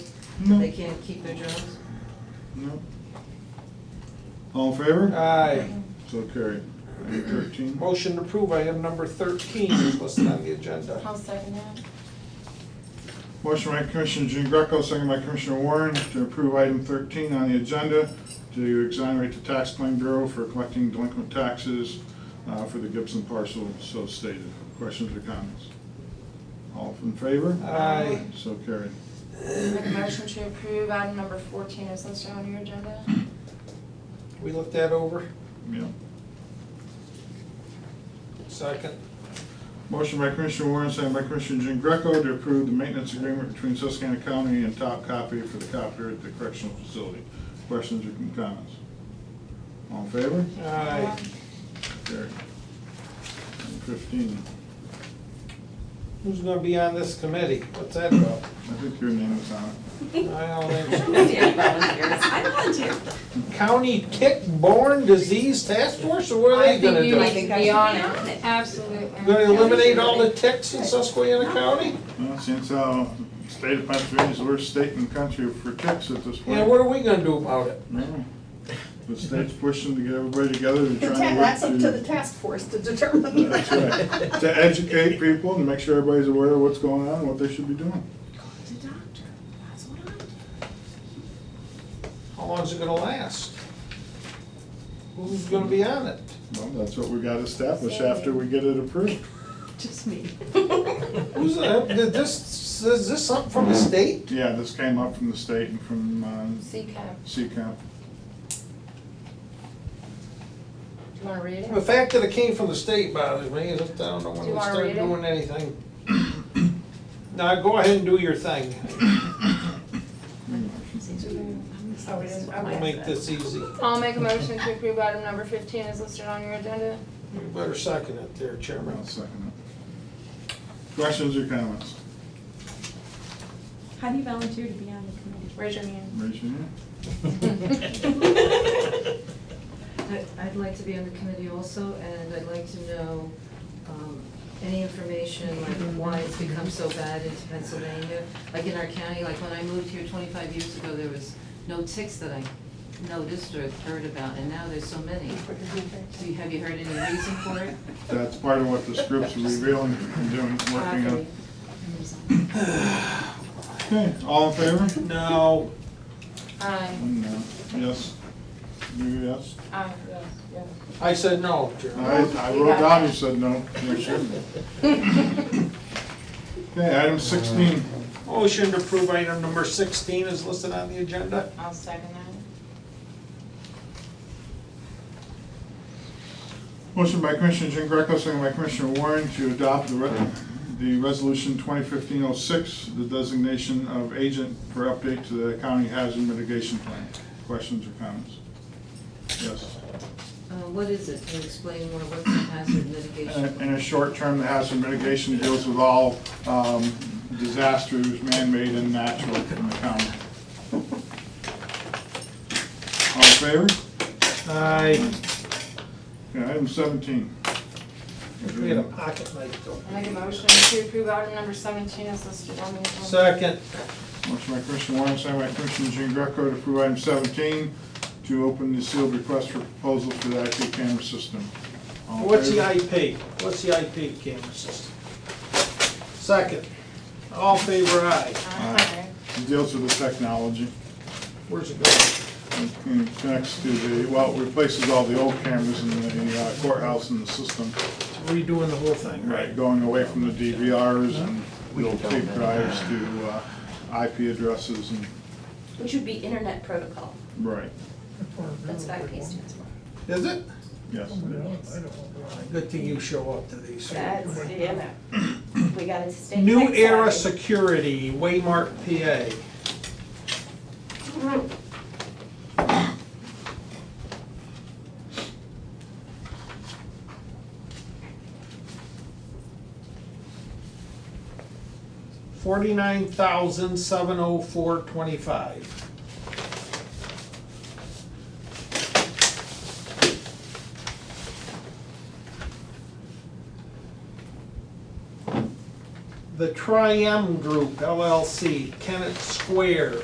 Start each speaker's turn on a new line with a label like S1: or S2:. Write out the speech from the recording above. S1: No.
S2: They can't keep their jobs?
S1: No. All in favor?
S3: Aye.
S1: So carried. Item thirteen.
S3: Motion to approve item number thirteen is listed on the agenda.
S4: I'll second that.
S1: Motion by Commissioner Jean Greco, second by Commissioner Warren to approve item thirteen on the agenda to exonerate the tax claim bureau for collecting delinquent taxes uh, for the Gibson parcel so stated. Questions or comments? All in favor?
S3: Aye.
S1: So carried.
S4: Make a motion to approve item number fourteen is listed on your agenda.
S3: We looked that over.
S1: Yeah.
S3: Second.
S1: Motion by Commissioner Warren, second by Commissioner Jean Greco to approve the maintenance agreement between Susquehanna County and Top Copy for the copter at the correctional facility. Questions or comments? All in favor?
S3: Aye.
S1: Carried. Item fifteen.
S3: Who's gonna be on this committee? What's that about?
S1: I think your name is on it.
S3: I don't answer.
S2: Volunteer, volunteer. I volunteer.
S3: County tick-borne disease task force, or what are they gonna do?
S4: I think you need to be on it.
S3: Gonna
S4: Absolutely.
S3: eliminate all the ticks in Susquehanna County?
S1: Well, since uh, the state of Pennsylvania is the worst state in the country for ticks at this point.
S3: Yeah, what are we gonna do about it?
S1: No. The state's pushing to get everybody together and
S5: The
S1: trying to work
S5: ta- That's up
S1: to-
S5: to the task force to determine.
S1: That's right. To educate people and make sure everybody's aware of what's going on and what they should be doing.
S5: To doctor, that's what I'm.
S3: How long's it gonna last? Who's gonna be on it?
S1: Well, that's what we got established after we get it approved.
S2: Just me.
S3: Who's, uh, did this, is this something from the state?
S1: Yeah, this came up from the state and from um,
S4: CCAP.
S1: CCAP.
S4: Do you wanna read it?
S3: The fact that it came from the state bothers me, is that I don't know
S4: Do
S3: when
S4: you
S3: we
S4: wanna
S3: start
S4: read it?
S3: doing anything. Now, go ahead and do your thing.
S5: Oh, it is,
S3: We'll
S5: okay.
S3: make this easy.
S4: I'll make a motion to approve item number fifteen is listed on your agenda.
S3: You better second it there, Chairman.
S1: I'll second it. Questions or comments?
S6: How do you volunteer to be on the committee?
S4: Raise your hand.
S1: Raise your hand.
S2: I- I'd like to be on the committee also, and I'd like to know um, any information, like why it's become so bad in Pennsylvania. Like in our county, like when I moved here twenty-five years ago, there was no ticks that I noticed or heard about, and now there's so many. Do you, have you heard any reason for it?
S1: That's part of what this group's revealing and doing, working on. Okay, all in favor?
S3: Now,
S4: Aye.
S1: One no. Yes. You yes?
S4: Aye, yes, yes.
S3: I said no,
S1: All
S3: Chairman.
S1: right, I wrote down, you said no. You shouldn't. Okay, item sixteen.
S3: Motion to approve item number sixteen is listed on the agenda.
S4: I'll second that.
S1: Motion by Commissioner Jean Greco, second by Commissioner Warren to adopt the, re- the resolution 2015-06, the designation of agent for update to the county hazard mitigation plan. Questions or comments? Yes.
S2: Uh, What is it? Can you explain more? What's the hazard mitigation?
S1: In in a short term, the hazard mitigation deals with all um, disasters, man-made and natural, in the county. All in favor?
S3: Aye.
S1: Okay, Item 17.
S3: We had a pocket knife though.
S4: I make a motion to approve item number seventeen is listed on the agenda.
S3: Second.
S1: Motion by Commissioner Warren, second by Commissioner Jean Greco to approve item seventeen, to open the sealed request for proposal for the IP camera system. All in
S3: What's the
S1: favor?
S3: IP? What's the IP camera system? Second. All in favor, aye.
S4: Aye.
S1: It deals with the technology,
S3: Where's it going?
S1: and- and connects to the, well, it replaces all the old cameras in the- in the uh, courthouse and the system.
S3: Redoing the whole thing, right?
S1: Going away from the DVRs and
S7: We can
S1: little
S7: tell
S1: tape
S7: them.
S1: drives to uh, IP addresses and,
S8: Which would be internet protocol,
S1: right,
S8: that's what IP stands for.
S3: Is it?
S1: yes.
S3: Good thing you show up to these.
S8: That's, you know, we got it state.
S3: New
S8: next
S3: Era
S8: slide.
S3: Security, Waymark, PA. Forty-nine thousand, seven oh four, twenty-five. The Tri-M Group LLC, Kennett Square,